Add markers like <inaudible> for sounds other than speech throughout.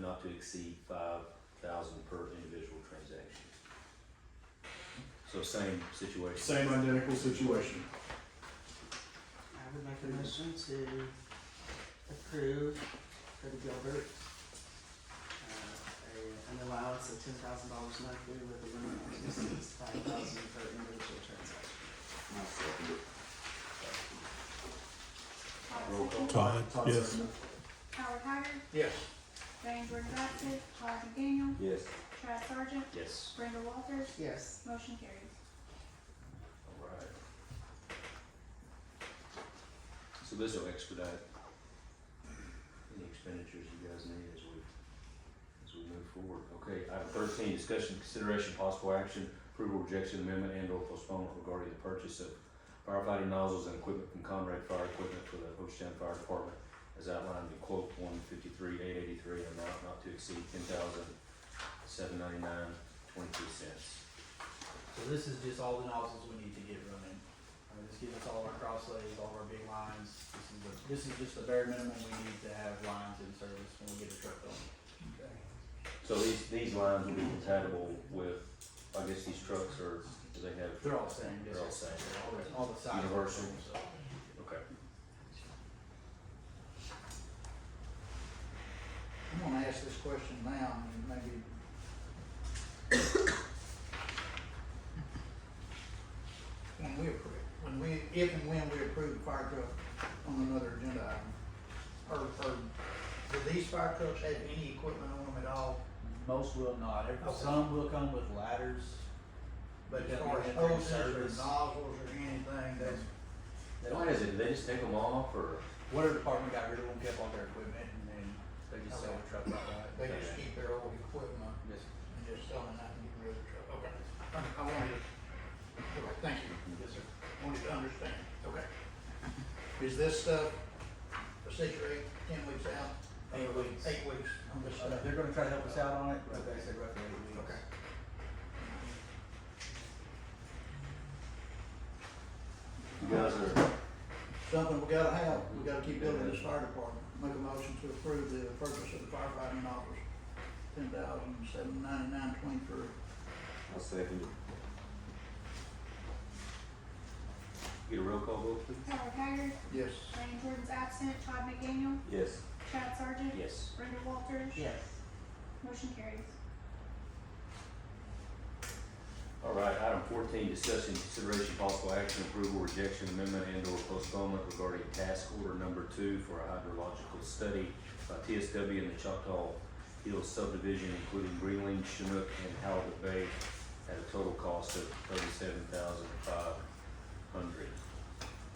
not to exceed five thousand per individual transaction. So same situation. Same identical situation. I would make a motion to approve for the Gilbert, uh, a- an allowance of ten thousand dollars monthly with a limit of five thousand per individual transaction. Roll Todd call. Todd, yes. Singer, Second. Howard Haggard, Yes. Diane Jordan Batson, Todd McDaniel, Yes. Chad Sargent, Yes. Brenda Walters, Yes, motion carries. Alright. So this will expedite any expenditures you guys need as we, as we move forward. Okay, item thirteen, discussion, consideration, possible action, approval, rejection, amendment, and or postponement regarding the purchase of firefighting nozzles and equipment from Conrad Fire Equipment for the Hochtown Fire Department as outlined in quote one fifty-three, eight eighty-three, amount not to exceed ten thousand, seven ninety-nine, twenty-three cents. So this is just all the nozzles we need to get running. Uh, this gives us all of our crosslays, all of our big lines. This is the, this is just the bare minimum we need to have lines in service when we get a truck going. So these, these lines will be compatible with, I guess these trucks are, do they have? They're all the same, yes, They're all the sir. same. They're all the, all the sizes. are Universal. the same, so. Okay. I'm gonna ask this question now, and maybe. When we approve, when we, if and when we approve the fire truck on another agenda item, or, or, do these fire trucks have any equipment on them at all? Most will not. Every- Okay. Some will come with ladders. But as Yeah, far they as have their hoses or service. nozzles or anything, that's, They Why don't, is it, they just take them off or? whatever department got rid of them kept all their equipment and then they just sell the truck outright. they just keep their old equipment Yes, and just selling that and get rid of the truck. Okay. I- I wanted to, okay, thank you. yes, sir. wanted to understand, okay. <laughs> Is this stuff a six or eight, ten weeks out? Eight weeks. Eight weeks on this Uh, stuff? They're gonna try to help us out on it, but they said roughly eight weeks. Okay. You guys are, Something we gotta have, we gotta keep building this fire department. Make a motion to approve the purchase of the firefighting office, ten thousand seven ninety-nine twenty-three. I'll second it. Get a roll call vote, please? Howard Haggard, Yes. Diane Jordan's absent, Todd McDaniel, Yes. Chad Sargent, Yes. Brenda Walters, yes. motion carries. All right, item fourteen, discussion, consideration, possible action, approval, rejection, amendment, and or postponement regarding task order number two for a hydrological study by TSW in the Choctaw Hills subdivision, including Greenling, Chinook, and Halibut Bay, at a total cost of thirty-seven thousand five hundred.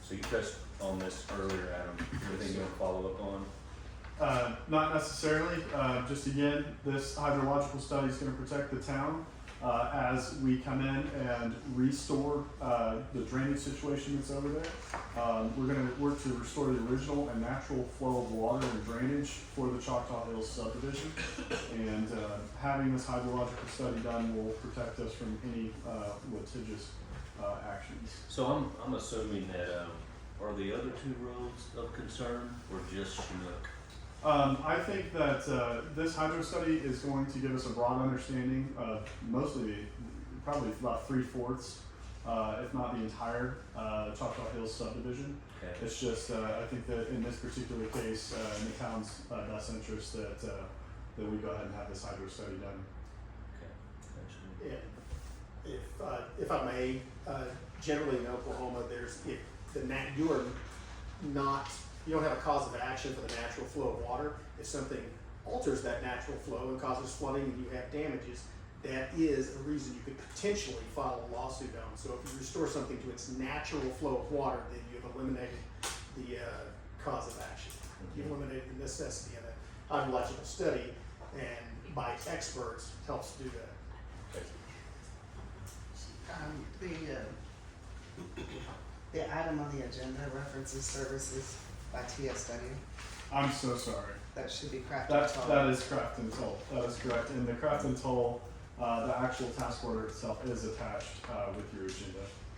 So you touched on this earlier, Adam, anything you want to follow up on? Uh, not necessarily, uh, just again, this hydrological study is gonna protect the town, uh, as we come in and restore, uh, the drainage situation that's over there. Um, we're gonna work to restore the original and natural flow of water and drainage for the Choctaw Hills subdivision. And, uh, having this hydrological study done will protect us from any, uh, litigious, uh, actions. So I'm, I'm assuming that, um, are the other two roads of concern, or just Chinook? Um, I think that uh, this hydro study is going to give us a broad understanding of mostly, probably about three fourths, uh, if not the entire uh, Choctaw Hills subdivision. Okay. It's just uh, I think that in this particular case, uh, in the town's uh, best interest, that uh, that we go ahead and have this hydro study done. Okay, gotcha. And if, uh, if I may, uh, generally in Oklahoma, there's, if the nat, you are not, you don't have a cause of action for the natural flow of water. If something alters that natural flow and causes flooding and you have damages, that is a reason you could potentially file a lawsuit on. So if you restore something to its natural flow of water, then you have eliminated the, uh, cause of action. You have eliminated the necessity of a hydrological study and by experts helps do that. Um, the, uh, the item on the agenda references services by TSW, I'm so sorry. that should be crafted That tall. that is correct and toll. That is correct. And the correct and toll, uh, the actual task order itself is attached uh, with your agenda. uh,